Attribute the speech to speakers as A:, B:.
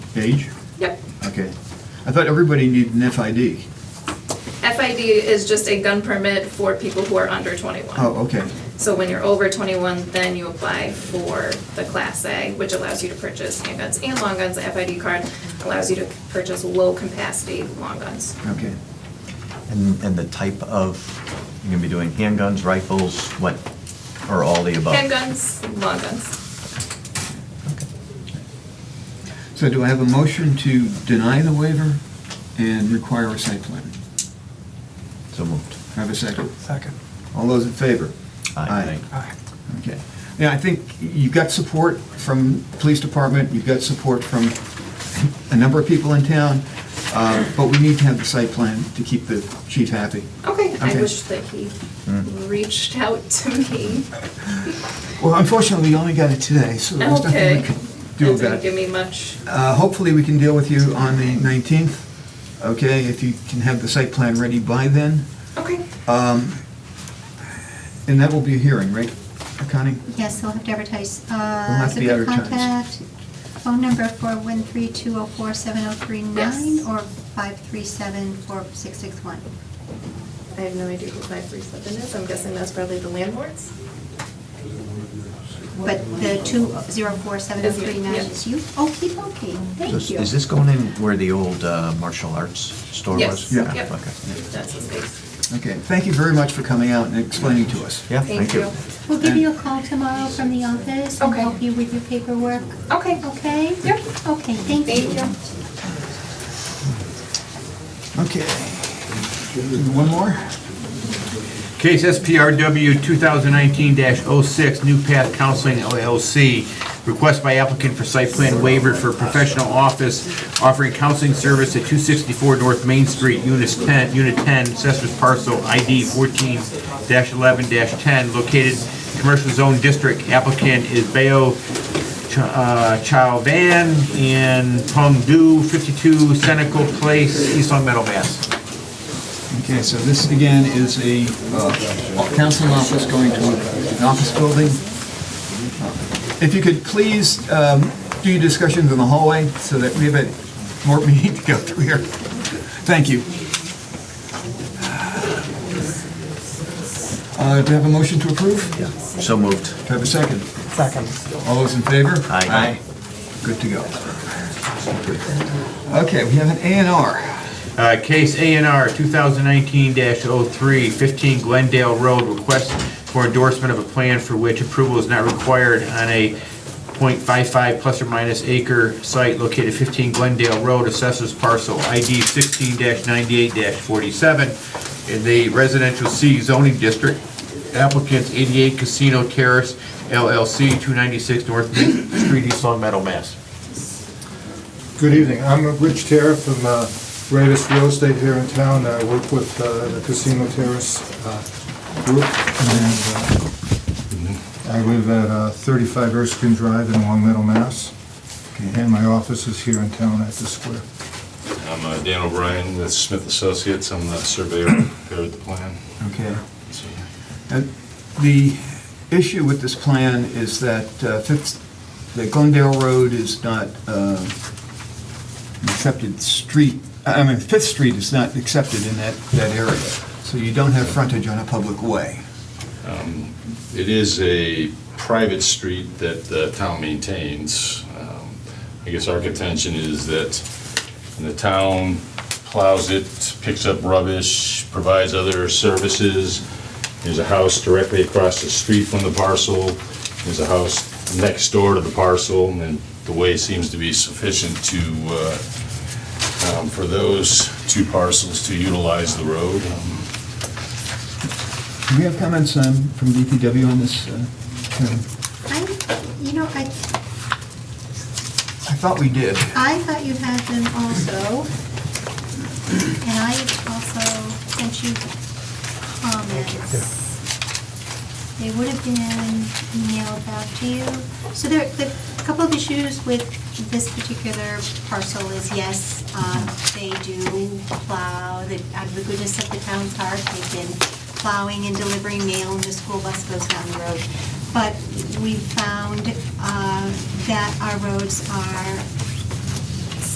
A: Page?
B: Yep.
A: Okay. I thought everybody needed an FID.
B: FID is just a gun permit for people who are under 21.
A: Oh, okay.
B: So when you're over 21, then you apply for the Class A, which allows you to purchase handguns and long guns. The FID card allows you to purchase low-capacity long guns.
A: Okay.
C: And, and the type of, you're gonna be doing handguns, rifles, what, or all the above?
B: Handguns, long guns.
A: So do I have a motion to deny the waiver and require a site plan?
C: So moved.
A: Do I Have a second?
D: Second.
A: All those in favor?
C: Aye.
D: Aye.
A: Okay. Yeah, I think you've got support from police department, you've got support from a number of people in town, uh, but we need to have the site plan to keep the chief happy.
B: Okay, I
A: Okay. Mm.
B: wish that he reached out to me.
A: Well, unfortunately, we only got it today, so there's nothing
B: Okay.
A: we can do
B: That
A: about it.
B: Didn't give me much.
A: Uh, Hopefully, we can deal with you on the 19th, okay, if you can have the site plan ready by then.
B: Okay.
A: Um, And that will be a hearing, right, Connie?
E: Yes, they'll have to advertise. Uh,
A: Will have to be advertised.
E: Contact phone number 413-204-7039
B: Yes.
E: or 537-4661.
B: I have no idea who 537 is. I'm guessing that's probably the landlords.
E: But the 204-7039
B: Yeah.
E: is you? Okey dokey,
C: So
E: thank
C: is-
E: you.
C: Is this going in where the old uh, martial arts store
B: Yes.
C: was?
A: Yeah.
B: Yep.
C: Okay.
B: That's the space.
A: Okay, thank you very much for coming out and explaining to us.
C: Yeah,
B: Thank
C: thank you.
B: you.
E: We'll give you a call tomorrow from the office and
B: Okay.
E: help you with your paperwork,
B: Okay.
E: okay?
B: Yep.
E: Okay, thank you.
B: Thank you.
A: Okay. One more?
F: Case SPRW 2019-06, New Path Counseling LLC. Request by applicant for site plan waiver for professional office offering counseling service at 264 North Main Street, Unit 10, Unit 10, Assessor's Parcel ID 14-11-10, located Commercial Zone District. Applicant is Bayo Ch- uh, Chow Van in Pengdu, 52 Senecal Place, East Long Meadow, Mass.
A: Okay, so this again is a uh, council office going to an office building. If you could please um, do your discussions in the hallway so that we have a more meeting to go through here. Thank you. Uh, Do I have a motion to approve? Do
C: So moved.
A: I have a second?
D: Second.
A: All those in favor?
C: Aye.
A: Good to go. Okay, we have an A and R.
F: Uh, Case A&R 2019-03, 15 oh Glendale Road, request for endorsement of a plan for which approval is not required on a .55 plus or minus acre site located 15 Glendale Road, assessors parcel ID 16-98-47 in the residential C zoning district. Applicants 88 Casino Terrace LLC, 296 North Main Street, East Long Meadow, Mass.
G: Good evening. I'm Rich Terra from uh, Radis Real Estate here in town. I work with uh, the Casino Terrace uh, Group. and uh, I live at uh, 35 Erskine Drive in Long Meadow, Mass. And my office is here in town at the square.
H: I'm uh, Dan O'Brien with Smith Associates. I'm the surveyor who prepared the plan.
A: Okay.
H: So,
A: Uh, The issue with this plan is that uh, Fifth, the Glendale Road is not uh, an accepted street, I mean, Fifth Street is not accepted in that, that area. So you don't have frontage on a public way.
H: It is a private street that the town maintains. Um, I guess our contention is that the town plows it, picks up rubbish, provides other services. There's a house directly across the street from the parcel. There's a house next door to the parcel, and the way seems to be sufficient to, uh, um, for those two parcels to utilize the road. Um,
A: Do we have comments um, from DPW on this? uh, Karen?
E: I, you know, I
A: I thought we did.
E: I thought you had them also, and I also sent you comments. They would have been emailed out to you. So there, the a couple of issues with this particular parcel is, yes, um, they do plow, that out of the goodness of the town's heart, they've been plowing and delivering mail, and the school bus goes down the road. But we found uh, that our roads are